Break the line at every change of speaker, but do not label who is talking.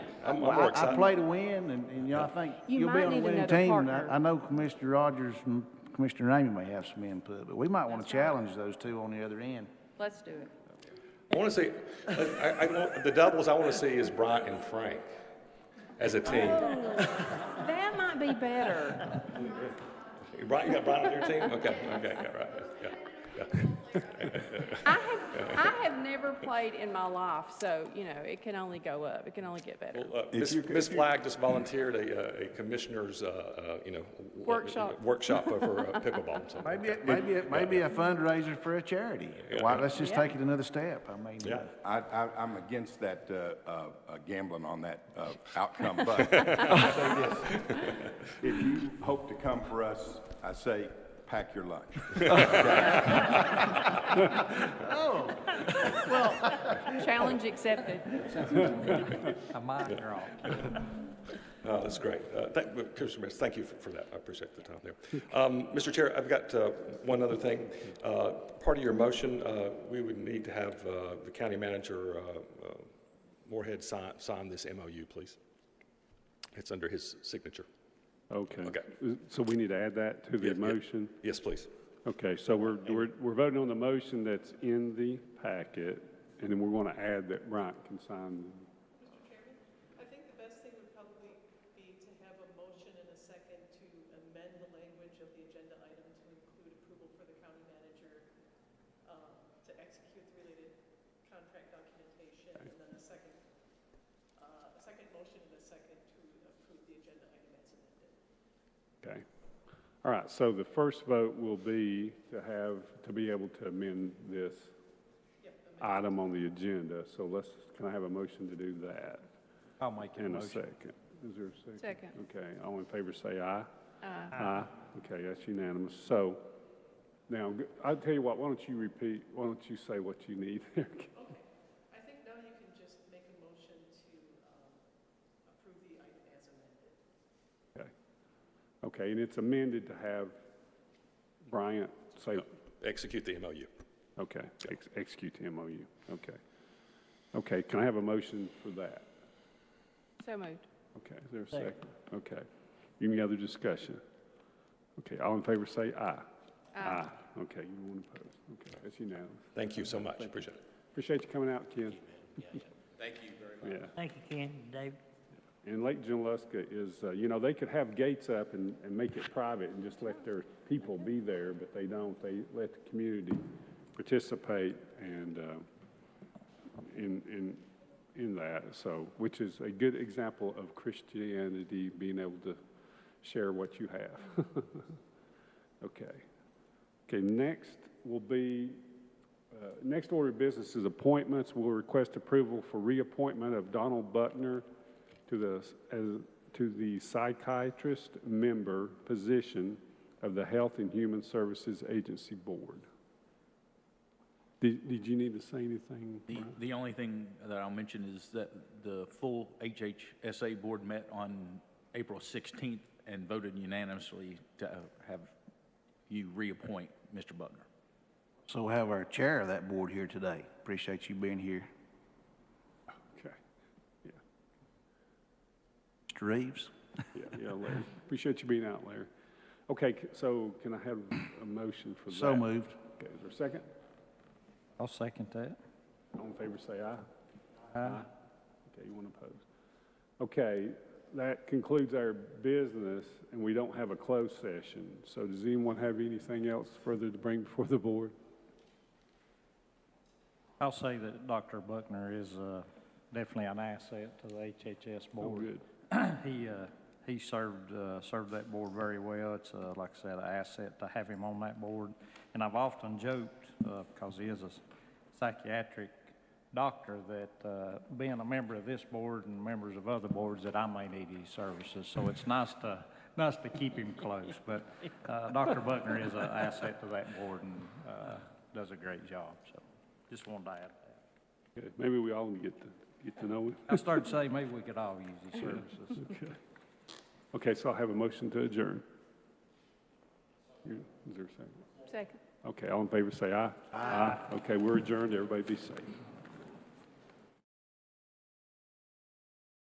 I'm, I'm
Well,
more
I, I
excited.
play to win, and, and you know, I think
You
you'll be
might
on a
need
winning
another
team. and
partner.
I, I know Commissioner Rogers and Commissioner Ramey may have some input, but we might want to challenge those two on the other end.
Let's do it.
I want to see, I, I want, the doubles I want to see is Bryant and Frank as a team.
That might be better.
You Bryant, you got Bryant on your team? Okay, okay, yeah, right, yeah, yeah.
I have, I have never played in my life, so, you know, it can only go up. It can only get better.
Well, uh, Ms. Ms. Flag just volunteered a, uh, a commissioner's, uh, uh, you know. w-
Workshop.
Workshop for uh, pickleball. so-
Maybe, it- maybe, it- maybe a fundraiser for a charity. Why, let's just take it another step. I mean, uh,
Yeah.
I, I, I'm against that, uh, uh, uh, gambling on that, uh, outcome, but I'll say this. If you hope to come for us, I say, pack your lunch.
Challenge accepted.
A mind draw.
No, that's great. Uh, thank- uh, Commissioner Mayor, thank you for for that. I appreciate the time there. Um, Mr. Chair, I've got uh, one other thing. Uh, Part of your motion, uh, we would need to have uh, the county manager, uh, uh, Moorhead, sign sign this MOU, please. It's under his signature.
Okay.
Okay.
So we need to add that to
Yeah,
the
yeah.
motion?
Yes, please.
Okay, so we're, we're, we're voting on the motion that's in the packet, and then we're going to add that Bryant can sign.
I think the best thing would probably be to have a motion and a second to amend the language of the agenda item to include approval for the county manager um, to execute the related contract documentation, and then a second, uh, a second motion and a second to approve the agenda item as amended.
Okay. All right, so the first vote will be to have, to be able to amend this item on the agenda. So let's, can I have a motion to do that?
I'll make a
And a
motion.
second. Is there a second?
Second.
Okay, all in favor say aye. Aye. Okay, that's unanimous. So now, g- I'll tell you what, why don't you repeat, why don't you say what you need there?
Okay, I think now you can just make a motion to um, approve the item as amended.
Okay. Okay, and it's amended to have Bryant say,
Execute the MOU.
okay, ex- execute the MOU. Okay. Okay, can I have a motion for that?
So moved.
Okay, is there a second? Okay. Any other discussion? Okay, all in favor say aye. Aye. Okay, you want to oppose? Okay, that's unanimous.
Thank you so much. Appreciate it.
Appreciate you coming out, Ken. Thank you very much.
Thank you, Ken, Dave.
Yeah, and Lake Junaluska is, uh, you know, they could have gates up and, and make it private and just let their people be there, but they don't. They let the community participate and, uh, in, in, in that, so, which is a good example of Christianity being able to share what you have. Okay. Okay, next will be, uh, next order of business is appointments. We'll request approval for reappointment of Donald Butner to the, s- as, to the psychiatrist member position of the Health and Human Services Agency Board. Did, did you need to say anything?
The,
Brian?
the only thing that I'll mention is that the full HHSA board met on April 16th and voted unanimously to uh, have you reappoint Mr. Buckner.
So we have our chair of that board here today. Appreciate you being here.
Okay, yeah.
Mr. Reeves?
Yeah, yeah, Larry. Appreciate you being out, Larry. Okay, c- so can I have a motion for that?
So moved.
Okay, is there a second?
I'll second that.
All in favor, say aye. Aye. Okay, you want to oppose? Okay, that concludes our business, and we don't have a closed session. So does anyone have anything else further to bring before the board?
I'll say that Dr. Buckner is uh, definitely an asset to the HHS
Oh,
board.
good.
He, uh, he served, uh, served that board very well. It's, uh, like I said, an asset to have him on that board. And I've often joked, uh, because he is a psychiatric doctor, that uh, being a member of this board and members of other boards, that I may need his services. So it's nice to, nice to keep him close. But uh, Dr. Buckner is an asset to that board and uh, does a great job. So just wanted to add that.
Okay, Maybe we all get to, get to know him.
I started to say, maybe we could all use his services.
Okay. Okay, so I'll have a motion to adjourn. Is there a second?
Second.
Okay, all in favor, say aye. Aye. Okay, we're adjourned. Everybody be safe.